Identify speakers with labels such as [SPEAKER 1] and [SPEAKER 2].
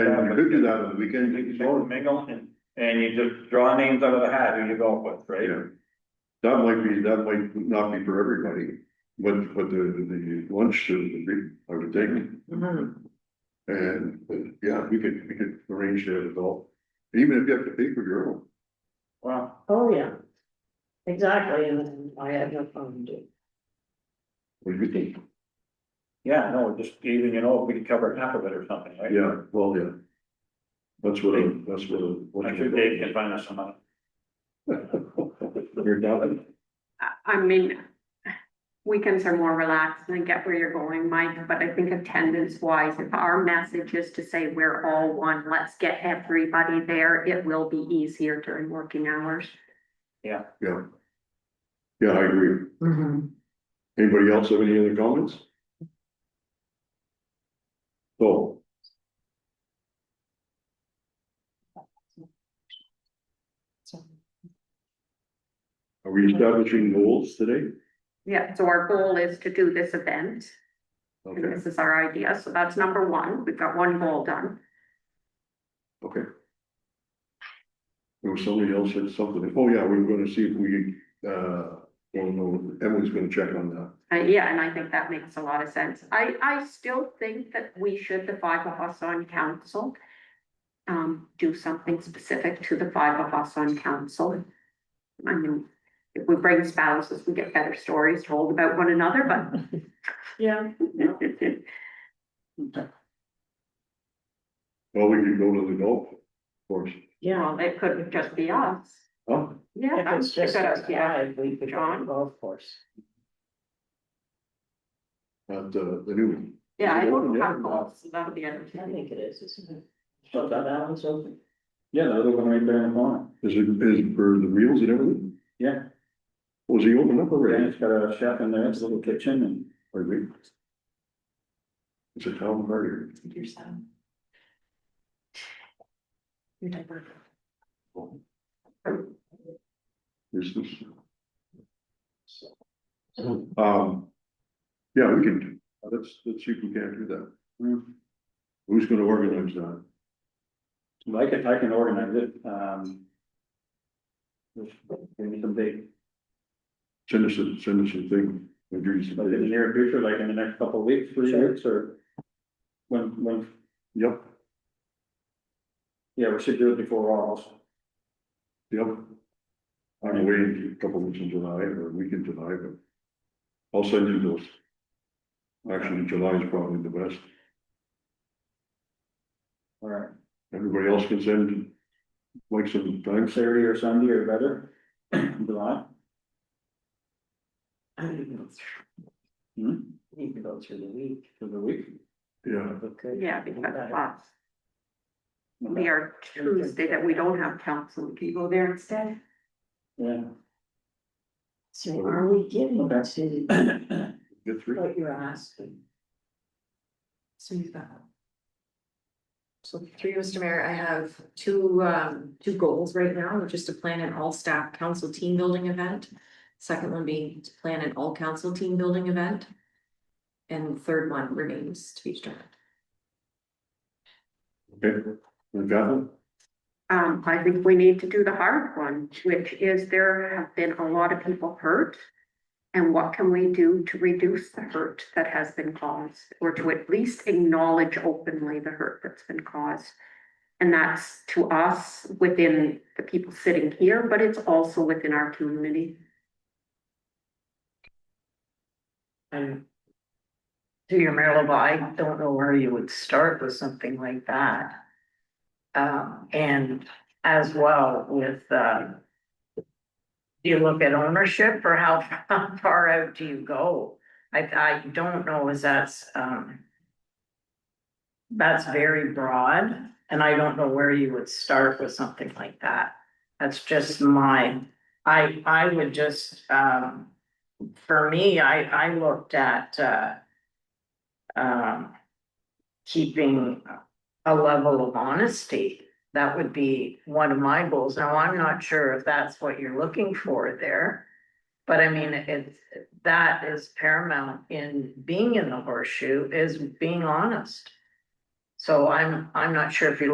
[SPEAKER 1] could do that on the weekend,
[SPEAKER 2] You just mingle and, and you just draw names out of the hat who you go with, right?
[SPEAKER 1] Yeah. That might be, that might not be for everybody, but, but the, the lunch is a big, I would think.
[SPEAKER 3] Mm-hmm.
[SPEAKER 1] And, uh, yeah, we could, we could arrange that as well, even if you have to pay for your own.
[SPEAKER 2] Wow,
[SPEAKER 3] Oh, yeah. Exactly, and then I had no phone to.
[SPEAKER 1] What do you think?
[SPEAKER 2] yeah, no, just even, you know, we could cover half of it or something, right?
[SPEAKER 1] Yeah, well, yeah. That's what, I- that's what. I- what
[SPEAKER 2] I'm sure Dave can find us some money.
[SPEAKER 1] You're down.
[SPEAKER 4] I- I mean, weekends are more relaxed and I get where you're going, Mike, but I think attendance wise, if our message is to say we're all one, let's get everybody there, it will be easier during working hours.
[SPEAKER 1] Yeah. Yeah, I agree. Anybody else have any other comments? So. Are we establishing goals today?
[SPEAKER 4] Yeah, so our goal is to do this event, and
[SPEAKER 1] Okay,
[SPEAKER 4] this is our idea, so that's number one, we've got one goal done.
[SPEAKER 1] okay. There was somebody else said something, oh yeah, we were gonna see if we, uh, don't know, Emily's gonna check on that.
[SPEAKER 4] Uh, yeah, and I think that makes a lot of sense. I, I still think that we should, the five of us on council. Um, do something specific to the five of us on council. I mean, if we bring spouses, we get better stories told about one another, but.
[SPEAKER 3] Yeah.
[SPEAKER 1] Well, we could go to the golf course.
[SPEAKER 3] Yeah.
[SPEAKER 4] Well, it could just be us.
[SPEAKER 1] Huh?
[SPEAKER 4] Yeah.
[SPEAKER 3] If it's
[SPEAKER 4] it
[SPEAKER 3] just
[SPEAKER 4] could-
[SPEAKER 3] us
[SPEAKER 4] Yeah,
[SPEAKER 3] five, we could go
[SPEAKER 4] John?
[SPEAKER 3] golf course.
[SPEAKER 1] At the, the new one.
[SPEAKER 4] yeah, I don't
[SPEAKER 1] Yeah.
[SPEAKER 4] have goals, so that'll be
[SPEAKER 3] I
[SPEAKER 4] entertaining.
[SPEAKER 3] think it is, isn't it? Well, that one's open.
[SPEAKER 2] Yeah, the other one right there in the corner,
[SPEAKER 1] Is it, is it for the meals and everything?
[SPEAKER 2] yeah,
[SPEAKER 1] Was he open up already?
[SPEAKER 2] got a chef in there, it's a little kitchen and.
[SPEAKER 1] Or we- It's a town party.
[SPEAKER 3] Your son. Your diaper.
[SPEAKER 1] Is this? Um. Yeah, we can, do- let's, let's see if we can do that. Who's gonna organize that?
[SPEAKER 2] I can, I can organize it, um. Give me some date,
[SPEAKER 1] Send us a, send us a thing. We'll do
[SPEAKER 2] like in the
[SPEAKER 1] some-
[SPEAKER 2] near future, like in the next couple of weeks, three weeks, or. When, when,
[SPEAKER 1] Yep,
[SPEAKER 2] yeah, we should do it before Raw also.
[SPEAKER 1] yep. I'm away a couple weeks in July or a week in July, but I'll send you those. Actually, July is probably the best.
[SPEAKER 2] All right,
[SPEAKER 1] Everybody else can send like some thanks.
[SPEAKER 2] Saturday or Sunday or better, in July.
[SPEAKER 3] I need to go
[SPEAKER 2] Hmm,
[SPEAKER 3] through- need to go through the week.
[SPEAKER 2] for the week.
[SPEAKER 1] Yeah,
[SPEAKER 3] Okay.
[SPEAKER 4] Yeah, because
[SPEAKER 3] Better.
[SPEAKER 4] plus, we are Tuesday that we don't have council, we can go there instead.
[SPEAKER 2] Yeah.
[SPEAKER 3] So are we getting
[SPEAKER 2] Okay.
[SPEAKER 3] to
[SPEAKER 1] get three.
[SPEAKER 3] what you're asking?
[SPEAKER 5] So you've got. So through you, Mr. Mayor, I have two um two goals right now, which is to plan an all-staff council team building event. Second one being to plan an all-council team building event. And third one remains to be determined.
[SPEAKER 1] Okay, and Catherine?
[SPEAKER 4] Um, I think we need to do the hard one, which is there have been a lot of people hurt. And what can we do to reduce the hurt that has been caused, or to at least acknowledge openly the hurt that's been caused? And that's to us, within the people sitting here, but it's also within our community.
[SPEAKER 3] I'm. To your Marilyn, I don't know where you would start with something like that. Um, and as well with, um. Do you look at ownership or how, how far out do you go? I, I don't know is that's, um. That's very broad and I don't know where you would start with something like that. That's just my, I, I would just, um for me, I, I looked at, uh, um, keeping a level of honesty. That would be one of my goals. Now, I'm not sure if that's what you're looking for there. But I mean, it's, that is paramount in being in the horseshoe is being honest. So I'm, I'm not sure if you're